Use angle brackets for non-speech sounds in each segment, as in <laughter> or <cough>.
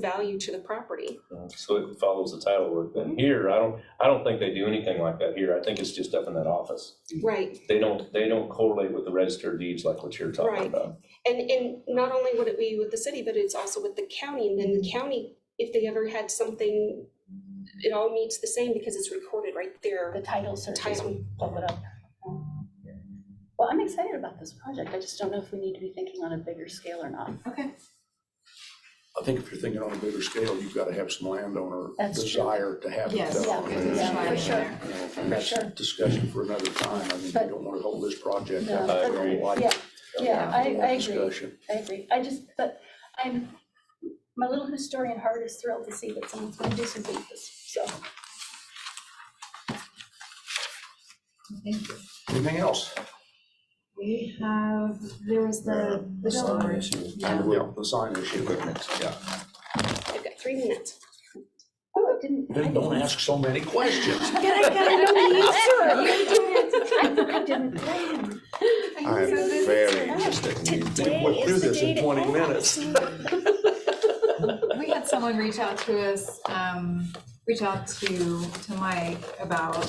value to the property. Uh, So it follows the title work, and here, I don't, I don't think they do anything like that here, I think it's just up in that office. Mm-hmm. Right, They don't, they don't correlate with the registered deeds like what you're Right. talking about. and, and not only would it be with the city, but it's also with the county, and then Mm-hmm. the county, if they ever had something, it all meets the same because it's recorded right The there. title search is Title. pull it up. Well, I'm excited about this project. I just don't know if we need to be thinking on a bigger scale or not. Okay. I think if you're thinking on a bigger scale, you've got to have some landowner That's true. desire to have it Yes, done. Yeah, And yeah, that's- for sure. you know, And that's Sure. discussion for another time. I mean, you But- don't want to hold this project No. up. I for a agree. life- Yeah, yeah, I, life I agree, discussion. I agree. I just, but I'm, my little historian heart is thrilled to see that someone's gonna do something with this, so. Thank you. Anything else? We have, there was the, the storage. And we'll- the sign issue. Yeah. I've got three minutes. Oh, it didn't. Then don't <laughs> ask so many questions. <laughs> I didn't- I didn't plan. I'm very interested in you. We went through this in 20 Oh, minutes. We had someone reach out to us, um, reach out to, to Mike about,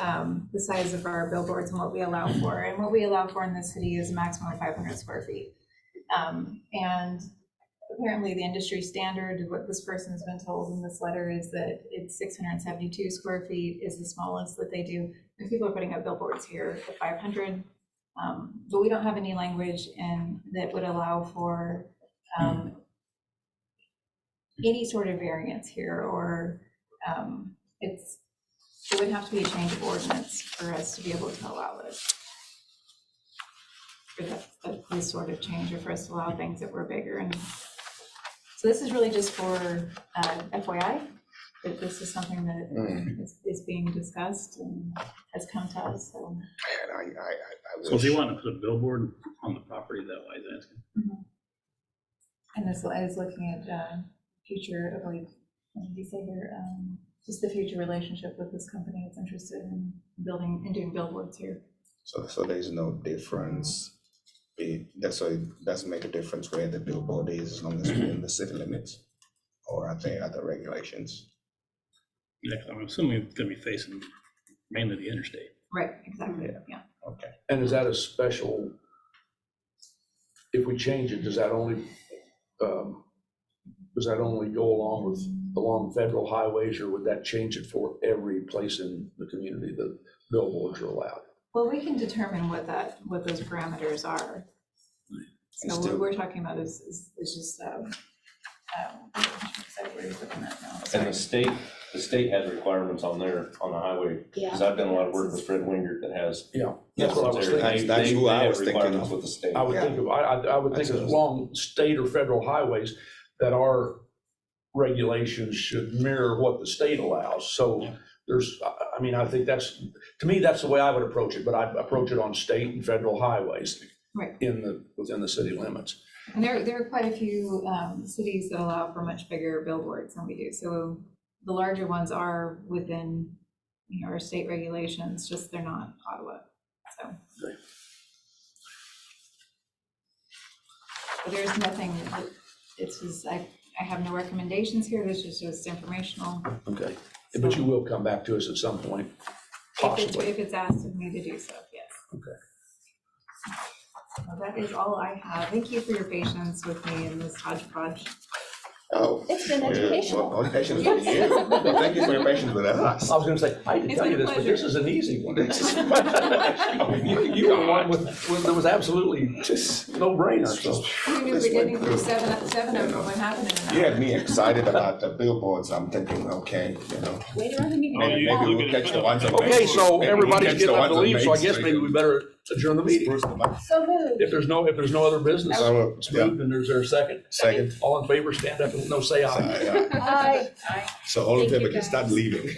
um, the size of our billboards and what we allow for. And what we allow for in the city is a maximum of five hundred square feet. Um, and apparently the industry standard, what this person's been told in this letter is that it's six hundred and seventy-two square feet is the smallest that they do. And people are putting up billboards here at five hundred. Um, but we don't have any language in, that would allow for, um, any sort of variance here, or um, it's, it would have to be a change of ordinance for us to be able to allow it. For that, that- this sort of change, or for us to allow things that were bigger, and so this is really just for uh, FYI, that this is something Mm. that is, is being discussed and has come to us, so. Man, I, I, I- I So if you wish, want to put a billboard on the property that way, that's, And this is looking at uh, future, I believe, what did you say here, Um, just the future relationship with this company that's interested in building and doing billboards here. so, so there's no difference. It, that's why it doesn't make a difference where the billboard is as long as it's in the city limits or are there other regulations? yeah, 'cause I'm assuming it's gonna be facing mainly the interstate. Right, exactly, yeah. Okay. And is that a special, if we change it, does that only, um, does that only go along with, along federal highways, or would that change it for every place in the community that billboards are allowed? Well, we can determine what that, what those parameters are. And So what still, we're talking about is, is is just, um, um, so we're looking at now, And sorry. the state, the state has requirements on there, on the highway, because I've done a lot of work with Fred Wingert that has. Yeah, that's what I was They- thinking. That's- that's they- who I they have was thinking requirements of. With the state. I would think of, I, I I would think of long state or federal highways that our regulations should mirror what the state allows. So there's, I, I mean, I think that's, to me, that's the way I would approach it, but I approach it on state and federal highways Right. in the, within the city limits. And there, there are quite a few um, cities that allow for much bigger billboards than we do. So the larger ones are within, you know, our state regulations, just they're not Ottawa, so. Right. But there's nothing, that- it's just, I, I have no recommendations here, this is just informational. Okay. But you will come back to us at some point, If it's, possibly. if it's asked of me to do so, yes. Okay. Well, that is all I have. Thank you for your patience with me in this hodgepodge. oh. It's been yeah, well, educational. All patience <laughs> with you. Well, Thank you for your patience with us. I was gonna say, I didn't It's tell you been a this, but this pleasure. is an easy one. <laughs> <laughs> I mean, you- You were one with, with- there was absolutely <laughs> Just, no brainer, so. We knew This beginning went through through. seven, seven of them, what happened in you an had me excited about the billboards. I'm thinking, okay, you know, hour. Later on in the Oh, maybe, you- meeting. maybe look we'll at it catch for the the- ones on Okay, Main Street. so Maybe we'll everybody's catch the getting up ones to on leave, so I Main guess Street. maybe we better adjourn the meeting. Spruce them up. So moved. If there's no, if there's no other business, So, it's yeah. moved and there's their second. Second. All in favor, stand up and no say aye. So all of them can start leaving.